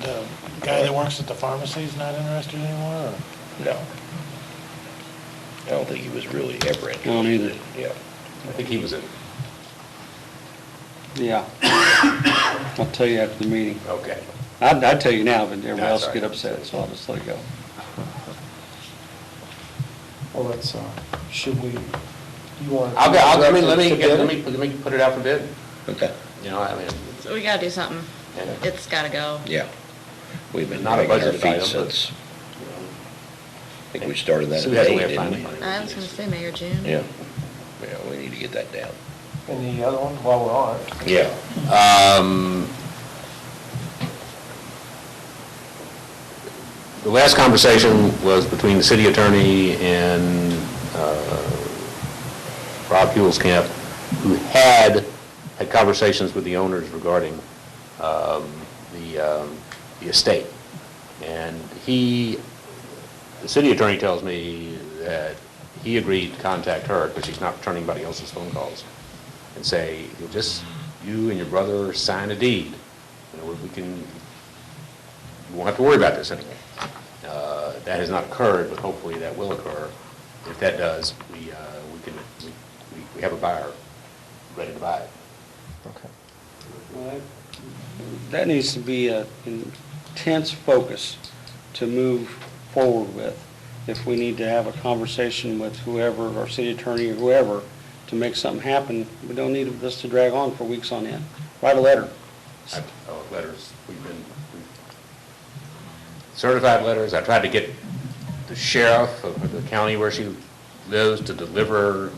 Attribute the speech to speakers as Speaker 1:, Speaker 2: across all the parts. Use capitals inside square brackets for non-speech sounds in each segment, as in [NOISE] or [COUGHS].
Speaker 1: the guy that works at the pharmacy is not interested anymore, or?
Speaker 2: No. I don't think he was really ever interested.
Speaker 3: Don't either.
Speaker 2: Yeah.
Speaker 4: I think he was in.
Speaker 3: Yeah. [COUGHS] I'll tell you after the meeting.
Speaker 4: Okay.
Speaker 3: I'd, I'd tell you now, but everybody
Speaker 4: That's
Speaker 3: else
Speaker 4: all
Speaker 3: get
Speaker 4: right.
Speaker 3: upset, so I'll just let it go.
Speaker 5: Well, that's, uh, should we, you want?
Speaker 4: I'll go, I'll, I mean, let me, let me, let me put it out for bid,
Speaker 2: Okay,
Speaker 4: you know, I mean,
Speaker 6: So we gotta do something.
Speaker 4: Yeah.
Speaker 6: It's gotta go.
Speaker 2: yeah. We've been
Speaker 4: Not a
Speaker 2: dragging our
Speaker 4: budgeted item,
Speaker 2: feet
Speaker 4: but-
Speaker 2: since, I think we started that
Speaker 4: So
Speaker 2: in
Speaker 4: we have a
Speaker 2: May,
Speaker 4: way of
Speaker 2: didn't
Speaker 4: finding
Speaker 2: we?
Speaker 4: money.
Speaker 6: I was gonna say May or June.
Speaker 2: Yeah. Yeah, we need to get that down.
Speaker 5: And the other one, while we're on it,
Speaker 2: Yeah.
Speaker 4: Um, The last conversation was between the city attorney and uh, Rob Huelskamp, who had had conversations with the owners regarding um, the um, the estate. And he, the city attorney tells me that he agreed to contact her, because she's not returning anybody else's phone calls, and say, "You'll just, you and your brother sign a deed, you know, we can, you won't have to worry about this anymore. Uh, That has not occurred, but hopefully that will occur. If that does, we, uh, we can, we- we have a buyer ready to buy it.
Speaker 5: okay.
Speaker 3: That needs to be an intense focus to move forward with. If we need to have a conversation with whoever, our city attorney or whoever, to make something happen, we don't need this to drag on for weeks on end. Write a letter.
Speaker 4: I- oh, Letters, we've been, we've- certified letters, I tried to get the sheriff of the county where she lives to deliver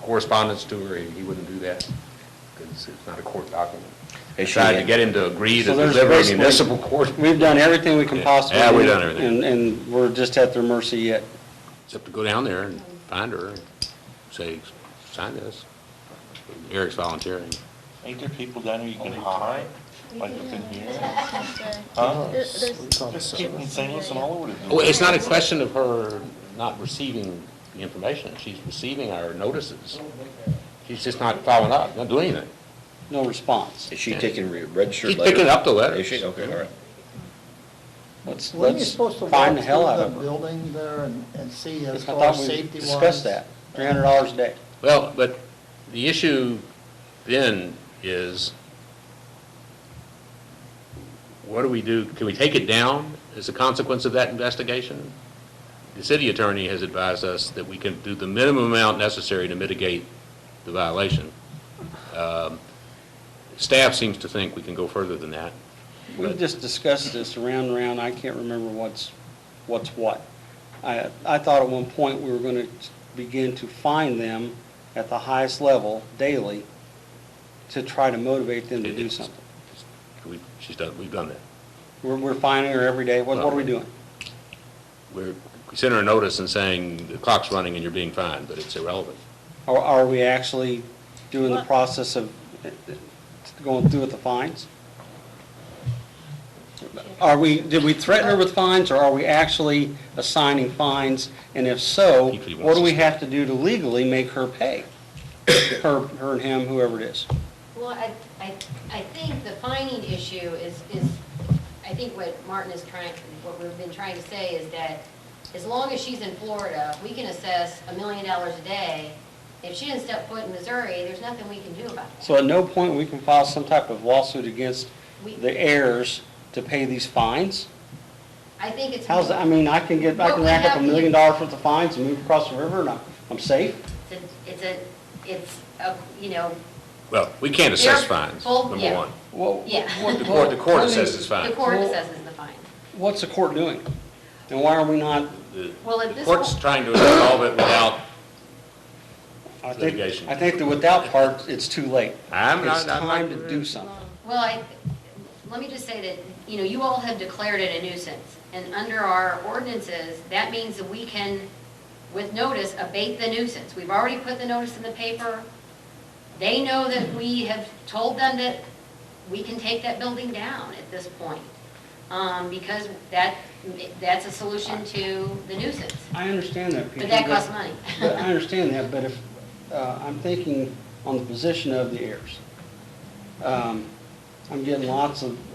Speaker 4: correspondence to her, he wouldn't do that, because it's not a court document. I
Speaker 2: Is she-
Speaker 4: tried to get him to agree to
Speaker 3: So there's
Speaker 4: deliver a
Speaker 3: basically-
Speaker 4: municipal court,
Speaker 3: [LAUGHS] We've done everything we can
Speaker 4: Yeah.
Speaker 3: possibly.
Speaker 4: Yeah, we've
Speaker 3: do,
Speaker 4: done everything.
Speaker 3: And, and we're just at their mercy yet.
Speaker 4: except to go down there and find her, and say, sign this. Eric's volunteering.
Speaker 7: Ain't there people down there you can hide, like up in here?
Speaker 5: No,
Speaker 7: Huh?
Speaker 5: it's-
Speaker 6: There-
Speaker 5: it's on
Speaker 7: Just
Speaker 5: the
Speaker 7: keeping things and all over the
Speaker 4: Well,
Speaker 7: place.
Speaker 4: it's not a question of her not receiving the information. She's receiving our notices. She's just not following up, not doing anything.
Speaker 3: No response.
Speaker 2: Is she taking re- registered
Speaker 4: She's
Speaker 2: letters?
Speaker 4: picking up the letters.
Speaker 2: Is she? Okay, all right.
Speaker 3: Let's,
Speaker 8: Weren't you
Speaker 3: let's
Speaker 8: supposed to
Speaker 3: find
Speaker 8: walk
Speaker 3: the hell out
Speaker 8: through
Speaker 3: of
Speaker 8: the
Speaker 3: her.
Speaker 8: building there and, and see
Speaker 3: I
Speaker 8: as far
Speaker 3: thought
Speaker 8: as
Speaker 3: we
Speaker 8: safety wise?
Speaker 3: discussed that, three hundred dollars a day.
Speaker 4: Well, but the issue then is, what do we do? Can we take it down as a consequence of that investigation? The city attorney has advised us that we can do the minimum amount necessary to mitigate the violation. Um, Staff seems to think we can go further than that.
Speaker 3: We've just discussed this around and around, I can't remember what's, what's what. I, I thought at one point we were gonna begin to find them at the highest level daily to try to motivate them to do something.
Speaker 4: We- She's done, we've done that.
Speaker 3: We're, we're finding her every day, what, what are we doing?
Speaker 4: We're, we sent her a notice and saying, the clock's running and you're being fined, but it's irrelevant.
Speaker 3: Are, are we actually doing the process of going through with the fines? Are we, did we threaten her with fines, or are we actually assigning fines? And if so,
Speaker 4: Usually
Speaker 3: what do we
Speaker 4: once a-
Speaker 3: have to do to legally make her pay? Her, her and him, whoever it is.
Speaker 9: Well, I, I, I think the fining issue is, is, I think what Martin is trying, what we've been trying to say is that as long as she's in Florida, we can assess a million dollars a day. If she didn't step foot in Missouri, there's nothing we can do about it.
Speaker 3: So at no point we can file some type of lawsuit against
Speaker 9: We-
Speaker 3: the heirs to pay these fines?
Speaker 9: I think it's.
Speaker 3: How's, that- I mean, I can get, I
Speaker 9: What
Speaker 3: can
Speaker 9: we
Speaker 3: rack up a
Speaker 9: have to-
Speaker 3: million dollars worth of fines and move across the river, and I'm, I'm safe?
Speaker 9: It's a- It's a, it's a, you know,
Speaker 4: Well, we can't assess
Speaker 9: They're
Speaker 4: fines,
Speaker 9: full-
Speaker 4: number
Speaker 9: yeah.
Speaker 4: one.
Speaker 3: Well,
Speaker 9: Yeah.
Speaker 3: [LAUGHS]
Speaker 4: The court, the court
Speaker 3: Well, I mean,
Speaker 4: assesses
Speaker 9: the
Speaker 4: fines.
Speaker 9: court
Speaker 3: Well-
Speaker 9: assesses the fine.
Speaker 3: What's the court doing? And why are we not,
Speaker 4: The
Speaker 9: Well, at
Speaker 4: the
Speaker 9: this
Speaker 4: court's
Speaker 9: point-
Speaker 4: trying to resolve it without,
Speaker 3: I think,
Speaker 4: Litigation.
Speaker 3: I think the without part, it's too late.
Speaker 4: I'm not-
Speaker 3: It's
Speaker 4: I'm not-
Speaker 3: time to do something.
Speaker 9: Well, I, let me just say that, you know, you all have declared it a nuisance, and under our ordinances, that means that we can, with notice, abate the nuisance. We've already put the notice in the paper. They know that we have told them that we can take that building down at this point, um, because that, that's a solution to the nuisance.
Speaker 3: I understand that, Peter.
Speaker 9: But that costs money. [LAUGHS]
Speaker 3: but I understand that, but if, uh, I'm thinking on the position of the heirs. Um, I'm getting lots of